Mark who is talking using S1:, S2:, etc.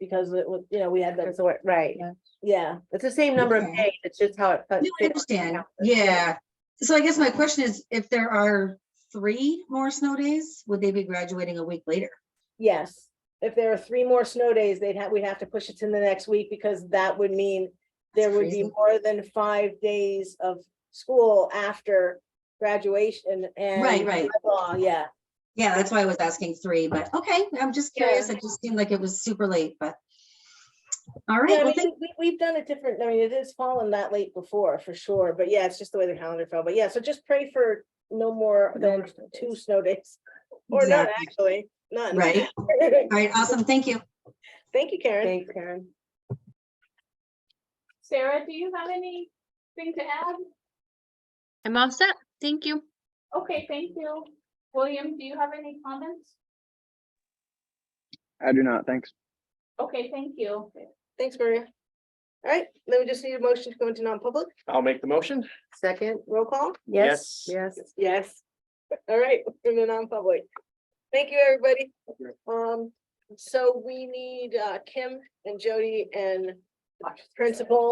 S1: because it was, you know, we had that,
S2: That's the way- right.
S3: Yeah.
S1: yeah.
S2: It's the same number of
S3: Okay.
S2: days. It's just how it.
S3: No, I
S2: fit- fits on the
S3: understand.
S2: calendar.
S3: Yeah. So I guess my question is, if there are three more snow days, would they be graduating a week later?
S1: Yes, if there are three more snow days, they'd have, we'd have to push it to the next week because that would mean there would be
S3: crazy.
S1: more than five days of school after graduation and.
S3: Right, right.
S1: Oh, yeah,
S3: Yeah, that's why I was asking three, but okay, I'm just curious. It just seemed like it was super late, but. All right,
S1: Yeah, I
S3: well,
S1: mean,
S3: thank-
S1: we, we've done it different, I mean, it has fallen that late before, for sure, but yeah, it's just the way the calendar fell, but yeah, so just pray for no more
S2: No
S1: than
S2: more snow
S1: two
S2: days.
S1: snow days. Or not,
S3: Exactly.
S1: actually, none.
S3: right. All right, awesome. Thank you.
S1: Thank you, Karen.
S2: Thanks, Karen.
S4: Sarah, do you have anything to add?
S5: I'm all set. Thank you.
S4: Okay, thank you. William, do you have any comments?
S6: I do not, thanks.
S4: Okay, thank you.
S1: Thanks, Maria. All right, then we just need a motion to go into non-public,
S7: I'll make the motion.
S2: Second,
S1: roll call.
S2: yes, yes.
S1: Yes. All right, in the non-public. Thank you, everybody.
S6: you.
S1: Um, so we need uh Kim and Jody and principal